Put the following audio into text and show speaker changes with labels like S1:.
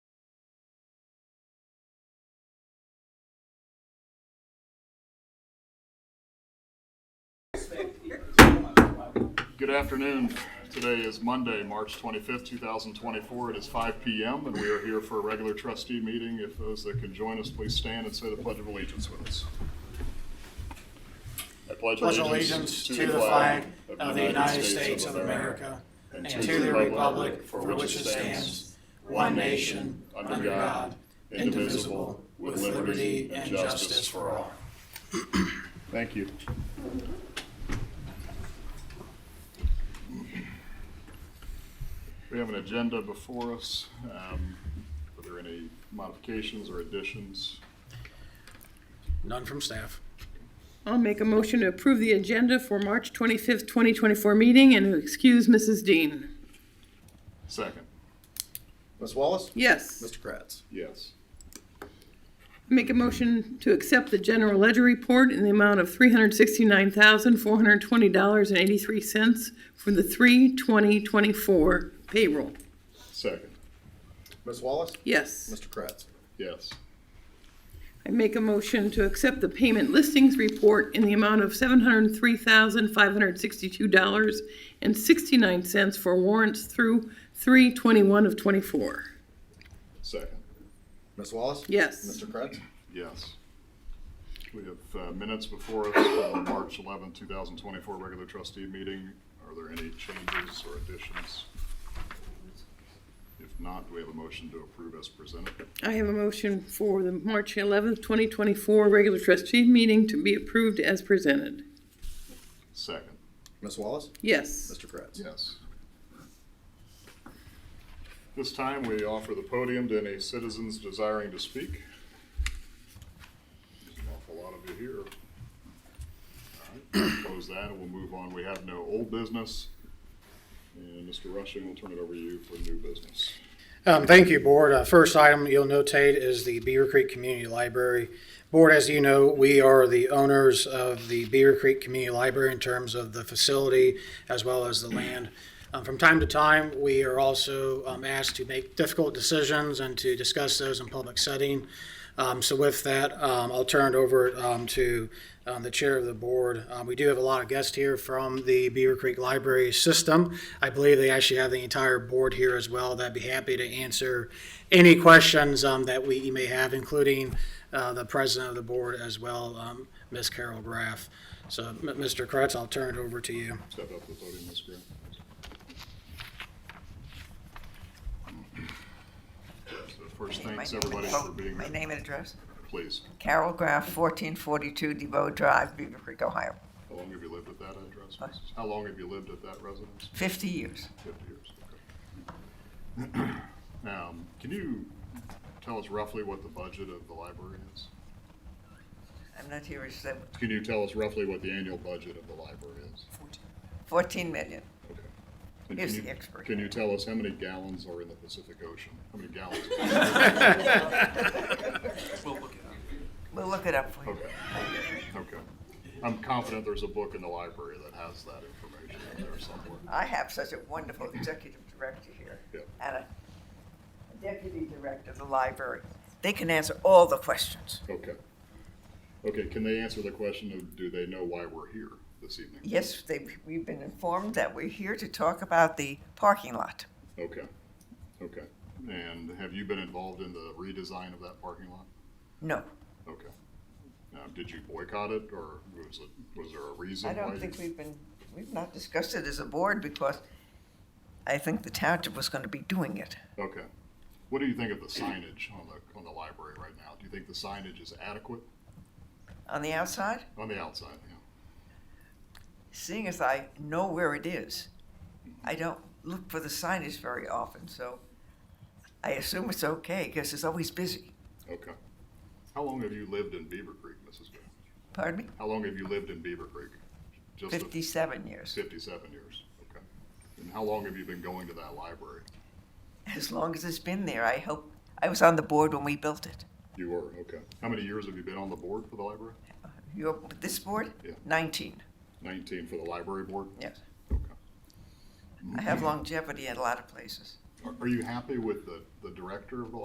S1: Good afternoon. Today is Monday, March 25th, 2024. It is 5 PM, and we are here for a regular trustee meeting. If those that can join us, please stand and say the Pledge of Allegiance with us. I
S2: pledge allegiance to the flag of the United States of America and to the republic for which it stands, one nation, under God, indivisible, with liberty and justice for all.
S1: Thank you. We have an agenda before us. Um, Are there any modifications or additions?
S2: None from staff.
S3: I'll make a motion to approve the agenda for March 25th, 2024 meeting and to excuse Mrs. Dean.
S1: Second,
S4: Ms. Wallace?
S3: Yes.
S4: Mr. Kratz?
S1: yes.
S3: Make a motion to accept the general ledger report in the amount of $369,420.83 for the 3/20/24 payroll.
S1: Second,
S4: Ms. Wallace?
S3: Yes.
S4: Mr. Kratz?
S1: yes.
S3: I make a motion to accept the payment listings report in the amount of $703,562.69 for warrants through 3/21 of '24.
S1: Second,
S4: Ms. Wallace?
S3: Yes.
S4: Mr. Kratz?
S1: yes. We have uh, minutes before us from the March 11, 2024 regular trustee meeting. Are there any changes or additions? If not, do we have a motion to approve as presented?
S3: I have a motion for the March eleventh, twenty twenty-four regular trustee meeting to be approved as presented.
S1: Second,
S4: Ms. Wallace?
S3: Yes.
S4: Mr. Kratz?
S1: yes. This time, we offer the podium to any citizens desiring to speak. There's an awful lot of you here. All right, Close that, and we'll move on. We have no old business. And Mr. Rushing, we'll turn it over to you for new business.
S2: Um, thank you, Board. Uh, first item you'll notate is the Beaver Creek Community Library. Board, as you know, we are the owners of the Beaver Creek Community Library in terms of the facility as well as the land. Um, from time to time, we are also um, asked to make difficult decisions and to discuss those in public setting. Um, so with that, um, I'll turn it over um, to um, the chair of the board. Um, we do have a lot of guests here from the Beaver Creek Library System. I believe they actually have the entire board here as well. That'd be happy to answer any questions um, that we you may have, including uh, the president of the board as well, um, Ms. Carol Graff. So, M- Mr. Kretz, I'll turn it over to you.
S1: Step up to the podium, Ms. Graham. So First, thanks,
S5: My name
S1: everybody,
S5: and-
S1: for being
S5: My
S1: here.
S5: name and address?
S1: Please,
S5: Carol Graff, 1442 DeVoe Drive, Beaver Creek, Ohio.
S1: how long have you lived at that address?
S5: Huh?
S1: Mrs.? How long have you lived at that residence?
S5: 50 years.
S1: 50 years. okay. Um, Can you tell us roughly what the budget of the library is?
S5: I'm not here, it's uh,
S1: Can you tell us roughly what the annual budget of the library is?
S5: 14 million.
S1: Okay. And
S5: Here's
S1: can
S5: the
S1: you-
S5: expert.
S1: Can you tell us how many gallons are in the Pacific Ocean? How many gallons?
S5: We'll look it up for you.
S1: Okay, okay. I'm confident there's a book in the library that has that information in there somewhere.
S5: I have such a wonderful executive director here
S1: Yeah.
S5: and a deputy director of the library. They can answer all the questions.
S1: Okay. Okay, can they answer the question of, do they know why we're here this evening?
S5: Yes, they, we've been informed that we're here to talk about the parking lot.
S1: Okay, okay. And have you been involved in the redesign of that parking lot?
S5: No,
S1: Okay. Now, did you boycott it, or was it, was there a reason?
S5: I
S1: why
S5: don't
S1: you-
S5: think we've been, we've not discussed it as a board because I think the township was going to be doing it.
S1: Okay. What do you think of the signage on the, on the library right now? Do you think the signage is adequate
S5: On the outside,
S1: on the outside? Yeah,
S5: seeing as I know where it is, I don't look for the signage very often, so I assume it's okay because it's always busy.
S1: okay. How long have you lived in Beaver Creek, Mrs. Graham?
S5: Pardon me?
S1: How long have you lived in Beaver Creek? Just a-
S5: 57 years,
S1: Fifty-seven years, okay. And how long have you been going to that library?
S5: as long as it's been there. I hope, I was on the board when we built it.
S1: You were, okay. How many years have you been on the board for the library?
S5: You're, this board?
S1: Yeah.
S5: 19,
S1: Nineteen for the library board?
S5: yes.
S1: Okay. Mm-hmm.
S5: I have longevity at a lot of places.
S1: Are- Are you happy with the, the director of the